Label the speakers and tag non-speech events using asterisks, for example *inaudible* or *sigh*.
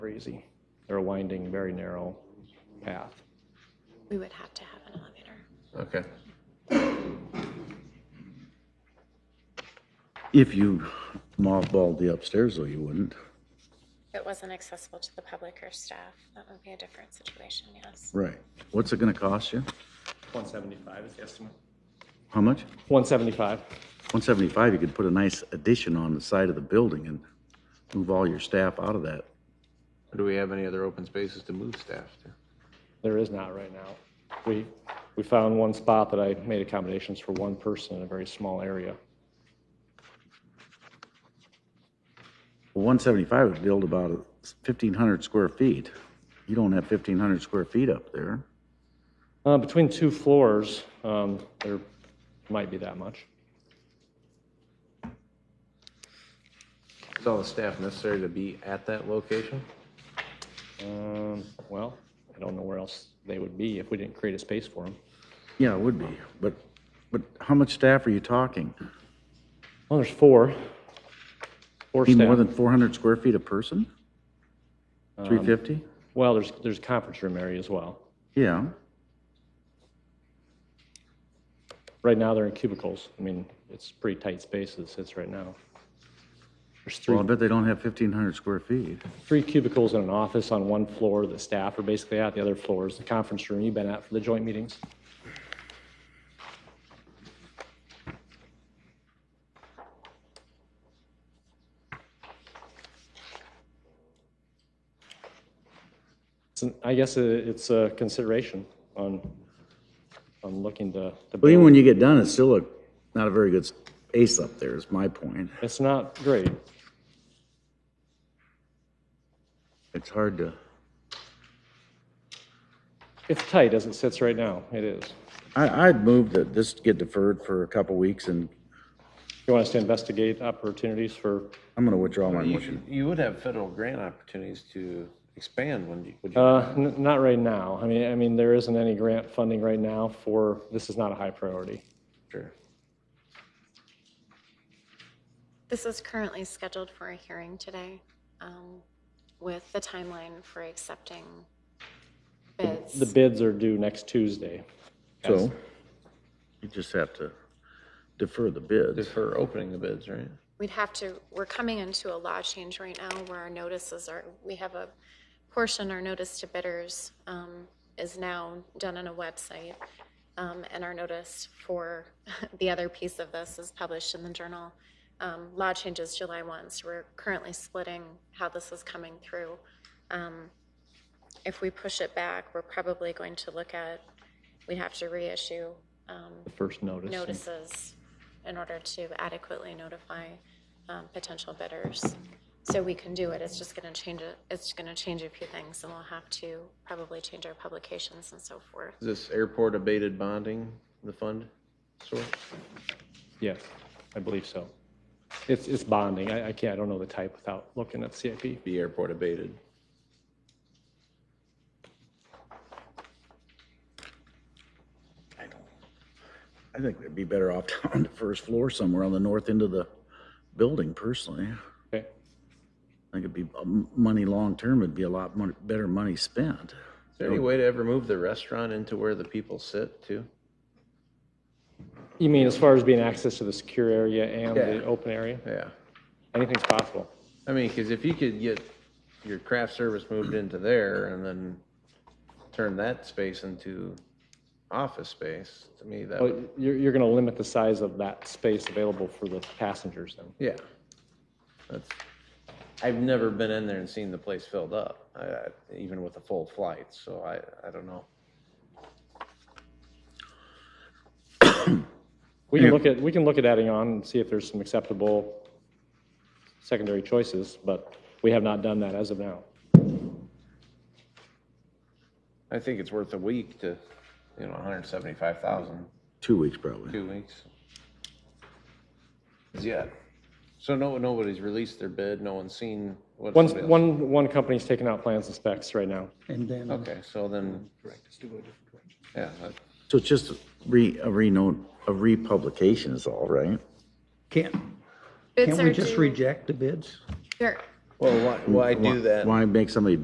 Speaker 1: easy. They're a winding, very narrow path.
Speaker 2: We would have to have an elevator.
Speaker 3: Okay.
Speaker 4: If you mothballed the upstairs, though, you wouldn't,
Speaker 2: If It wasn't accessible to the public or staff. That would be a different situation, yes.
Speaker 4: right? What's it gonna cost you?
Speaker 1: 175 is the estimate.
Speaker 4: How much?
Speaker 1: 175.
Speaker 4: One seventy-five, you could put a nice addition on the side of the building and move all your staff out of that.
Speaker 3: Do we have any other open spaces to move staff to?
Speaker 1: There is not right now. We, we found one spot that I made accommodations for one person in a very small area.
Speaker 4: One seventy-five would build about fifteen hundred square feet. You don't have fifteen hundred square feet up there.
Speaker 1: Uh, Between two floors, um, there might be that much.
Speaker 3: Is all the staff necessary to be at that location?
Speaker 1: Um, Well, I don't know where else they would be if we didn't create a space for them.
Speaker 4: Yeah, it would be, but, but how much staff are you talking?
Speaker 1: Well, there's four. Four
Speaker 4: Need more
Speaker 1: staff.
Speaker 4: than four hundred square feet a person? Three fifty?
Speaker 1: Well, there's, there's a conference room area as well.
Speaker 4: Yeah,
Speaker 1: Right now, they're in cubicles. I mean, it's pretty tight space as it sits right now. There's three,
Speaker 4: well, I bet they don't have fifteen hundred square feet.
Speaker 1: three cubicles in an office on one floor that staff are basically at. The other floor is the conference room you've been at for the joint meetings. It's an- I guess it- it's a consideration on, on looking to. to
Speaker 4: Well, even
Speaker 1: build.
Speaker 4: when you get done, it's still a, not a very good ace up there, is my point.
Speaker 1: It's not great.
Speaker 4: It's hard to,
Speaker 1: It's tight as it sits right now. It is.
Speaker 4: I, I'd move that this get deferred for a couple weeks and
Speaker 1: You want us to investigate opportunities for,
Speaker 4: I'm gonna withdraw my
Speaker 3: You
Speaker 4: motion.
Speaker 3: should- You would have federal grant opportunities to expand, wouldn't you? would you?
Speaker 1: uh, n- not right now. I mean, I mean, there isn't any grant funding right now for, this is not a high priority.
Speaker 3: Sure.
Speaker 2: This is currently scheduled for a hearing today um, with the timeline for accepting bids.
Speaker 1: The bids are due next Tuesday.
Speaker 4: So you just have to defer the bids.
Speaker 3: Defer opening the bids, right?
Speaker 2: We'd have to, we're coming into a law change right now where our notices are, we have a portion, our notice to bidders um, is now done on a website. um, And our notice for *laughs* the other piece of this is published in the journal. Um, Law changes July 1, so we're currently splitting how this is coming through. Um, If we push it back, we're probably going to look at, we'd have to reissue um,
Speaker 1: The first notice.
Speaker 2: notices in order to adequately notify um, potential bidders. So we can do it, it's just going to change, it. it's going to change a few things, and we'll have to probably change our publications and so forth.
Speaker 3: Is this airport abated bonding, the fund source?
Speaker 1: Yes, I believe so. It's, it's bonding. I, I can't, I don't know the type without looking at CIP.
Speaker 3: Be airport abated.
Speaker 4: I think they'd be better off *laughs* down on the first floor somewhere on the north end of the building personally. I
Speaker 1: Okay.
Speaker 4: think it'd be, um, money long-term would be a lot mon- better money spent.
Speaker 3: Is there any way to ever move the restaurant into where the people sit too?
Speaker 1: You mean as far as being access to the secure area and the
Speaker 3: Yeah.
Speaker 1: open area?
Speaker 3: Yeah.
Speaker 1: Anything's possible.
Speaker 3: I mean, because if you could get your craft service moved into there and then turn that space into office space, to me, that would,
Speaker 1: But you're, you're going to limit the size of that space available for the passengers then.
Speaker 3: yeah. That's, I've never been in there and seen the place filled up, I, I, even with a full flight, so I, I don't know.
Speaker 1: We can look at, we can look at adding on and see if there's some acceptable secondary choices, but we have not done that as of now.
Speaker 3: I think it's worth a week to, you know, 175,000,
Speaker 4: Two weeks probably.
Speaker 3: two weeks. 'Cause, Yeah. So no, nobody's released their bid, no one's seen what
Speaker 1: One,
Speaker 3: somebody else-
Speaker 1: one, one company's taking out plans and specs right now.
Speaker 5: And then, uh,
Speaker 3: Okay, so then. Correct, it's to go a different direction. Yeah, that-
Speaker 4: So it's just re, a reno, a republication is all, right?
Speaker 5: can't,
Speaker 2: Bids
Speaker 5: can't
Speaker 2: are
Speaker 5: we just
Speaker 2: due-
Speaker 5: reject the bids?
Speaker 2: they're-
Speaker 3: well, why, why do that?
Speaker 4: Why make somebody